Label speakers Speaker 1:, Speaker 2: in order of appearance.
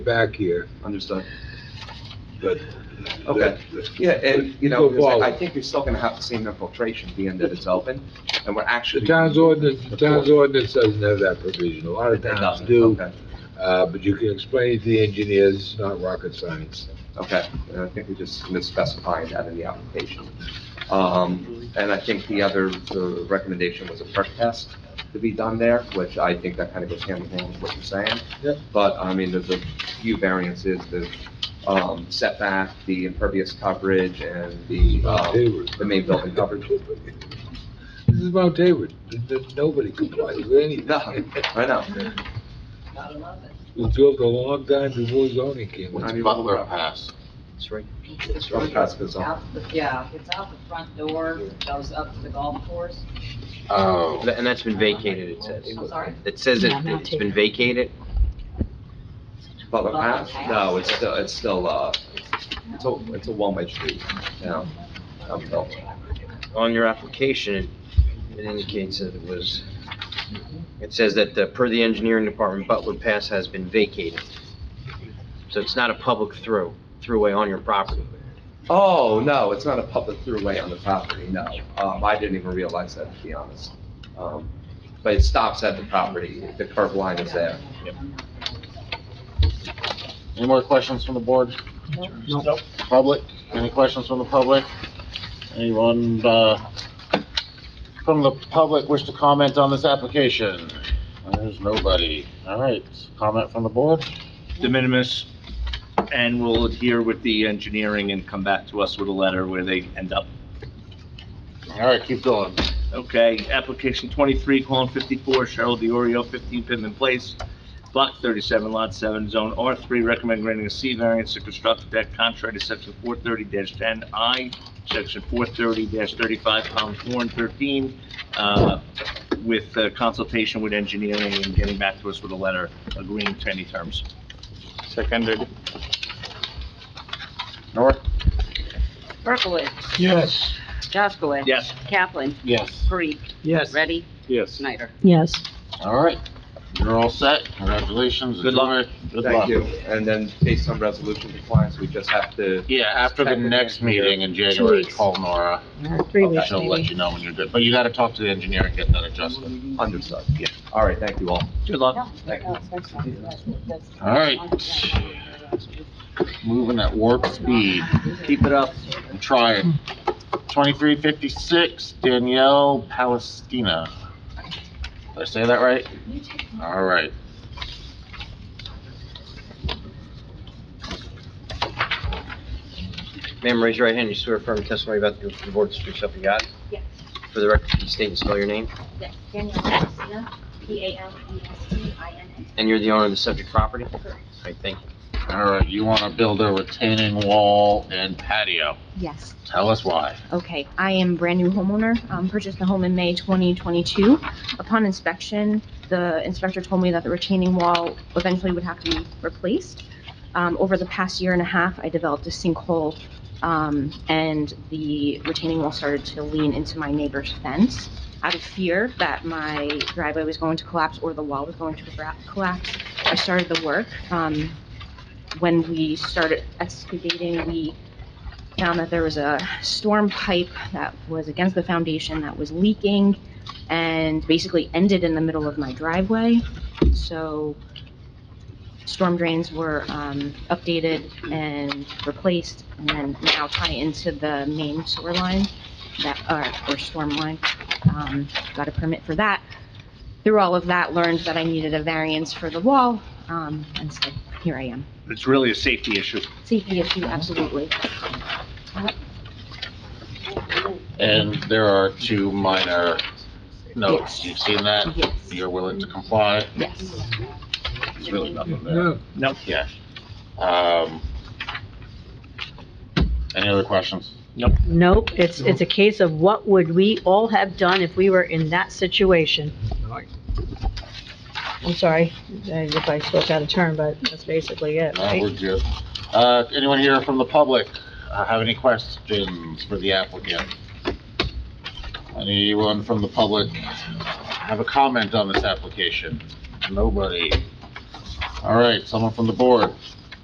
Speaker 1: back here.
Speaker 2: Understood.
Speaker 1: But
Speaker 2: Okay.
Speaker 1: that-
Speaker 2: Yeah, and, you know,
Speaker 1: Go
Speaker 2: it's like, I
Speaker 1: forward.
Speaker 2: think you're still gonna have the same infiltration being that it's open, and we're
Speaker 1: The
Speaker 2: actually.
Speaker 1: town's ordinance, the town's ordinance doesn't have that provision. A lot
Speaker 2: It
Speaker 1: of towns
Speaker 2: doesn't,
Speaker 1: do,
Speaker 2: Okay,
Speaker 1: uh, but you can explain it to the engineers, it's not rocket science.
Speaker 2: okay, and I think we just misspecified that in the application. Um, and I think the other, the recommendation was a perk test to be done there, which I think that kind of goes hand in hand with what you're saying.
Speaker 1: Yep.
Speaker 2: But, I mean, there's a few variances, the, um, setback, the impervious coverage, and the,
Speaker 1: Mount
Speaker 2: um,
Speaker 1: Hayward.
Speaker 2: the main building coverage.
Speaker 1: This is Mount Hayward. Th- th- Nobody complies with
Speaker 2: No,
Speaker 1: anything.
Speaker 2: I know.
Speaker 1: It was built a long time before zoning came. in.
Speaker 2: I
Speaker 3: What's
Speaker 2: mean,
Speaker 3: Butler Pass?
Speaker 4: It's
Speaker 2: Sure,
Speaker 4: right
Speaker 2: that's good.
Speaker 4: out the- Yeah, it's out the front door, goes up to the golf course.
Speaker 3: Oh,
Speaker 5: Th- And that's been vacated, it says.
Speaker 4: I'm sorry?
Speaker 5: It says it- it's been vacated?
Speaker 2: Butler Pass? No, it's still, it's still, uh, it's a, it's a one-way street, you know, uphill.
Speaker 5: On your application, it indicates that it was, it says that uh, per the engineering department, Butler Pass has been vacated. So it's not a public through, throughway on your property.
Speaker 2: Oh, no, it's not a public throughway on the property, no. Um, I didn't even realize that, to be honest. Um, but it stops at the property, the curb line is there.
Speaker 6: Any more questions from the board?
Speaker 4: No.
Speaker 6: Public? Any questions from the public? Anyone, uh, from the public wish to comment on this application? There's nobody. All right, comment from the board?
Speaker 7: de minimis, and we'll adhere with the engineering and come back to us with a letter where they end up.
Speaker 6: All right, keep going.
Speaker 7: Okay, application twenty-three, colon fifty-four, Cheryl DiOrio, fifteen Pittman Place, block thirty-seven, lot seven, zone R three, recommend granting a C variance to construct a deck contrary to section four thirty ten I, section four thirty thirty-five, column four and thirteen, uh, with uh, consultation with engineering and getting back to us with a letter agreeing to any terms. Seconded.
Speaker 6: Nora?
Speaker 8: Berkowitz.
Speaker 1: Yes.
Speaker 8: Jaskowitz.
Speaker 7: Yes.
Speaker 8: Kaplan.
Speaker 6: Yes.
Speaker 8: Parikh.
Speaker 1: Yes.
Speaker 8: Ready.
Speaker 7: Yes.
Speaker 8: Snyder.
Speaker 9: Yes.
Speaker 6: All right, you're all set. Congratulations.
Speaker 7: Good luck.
Speaker 6: Enjoy. Good
Speaker 2: Thank
Speaker 6: luck.
Speaker 2: you. And then based on resolution compliance, we just have to,
Speaker 6: Yeah, after the
Speaker 2: Check with
Speaker 6: next
Speaker 2: the engineer.
Speaker 6: meeting in January,
Speaker 9: weeks.
Speaker 6: call Nora.
Speaker 9: Three
Speaker 2: Okay.
Speaker 9: weeks
Speaker 6: She'll let
Speaker 9: maybe.
Speaker 6: you know when you're good, but you gotta talk to the engineer and get that adjustment.
Speaker 2: understood. All right, thank you all.
Speaker 7: Good luck.
Speaker 2: Thank you.
Speaker 6: All right. Moving at warp speed.
Speaker 7: Keep it up.
Speaker 6: I'm trying. Twenty-three fifty-six Danielle Palestina. Did I say that right? All right.
Speaker 5: Ma'am, raise your right hand, you swear affirm testimony about the board to speak up you got?
Speaker 10: Yes.
Speaker 5: For the record, please state and spell your name,
Speaker 10: Yes, Daniel Palestina, E P-A-L-E-S-T-I-N-A.
Speaker 5: and you're the owner of the subject property? All right, thank you.
Speaker 6: All right, you want to build a retaining wall and patio.
Speaker 10: Yes,
Speaker 6: Tell us why.
Speaker 10: okay. I am brand-new homeowner, um, purchased the home in May 2022. Upon inspection, the inspector told me that the retaining wall eventually would have to be replaced. Um, over the past year and a half, I developed a sinkhole, um, and the retaining wall started to lean into my neighbor's fence. Out of fear that my driveway was going to collapse or the wall was going to gra- collapse, I started the work. Um, when we started excavating, we found that there was a storm pipe that was against the foundation that was leaking and basically ended in the middle of my driveway. So storm drains were um, updated and replaced and then now tie into the main sewer line that, or, or storm line. Um, Got a permit for that. Through all of that, learned that I needed a variance for the wall, um, and so here I am.
Speaker 7: It's really a safety issue.
Speaker 10: Safety issue, absolutely.
Speaker 6: And there are two minor notes.
Speaker 10: Yes.
Speaker 6: You've seen that?
Speaker 10: Yes,
Speaker 6: You're willing to comply?
Speaker 10: yes.
Speaker 6: There's really nothing there.
Speaker 1: No,
Speaker 6: Yeah. Um, any other questions?
Speaker 9: Nope, it's, it's a case of what would we all have done if we were in that situation? I'm sorry uh, if I spoke out of turn, but that's basically it,
Speaker 6: No,
Speaker 9: right?
Speaker 6: we're good. Uh, anyone here from the public uh, have any questions for the applicant? Anyone from the public have a comment on this application? Nobody. All right, someone from the board?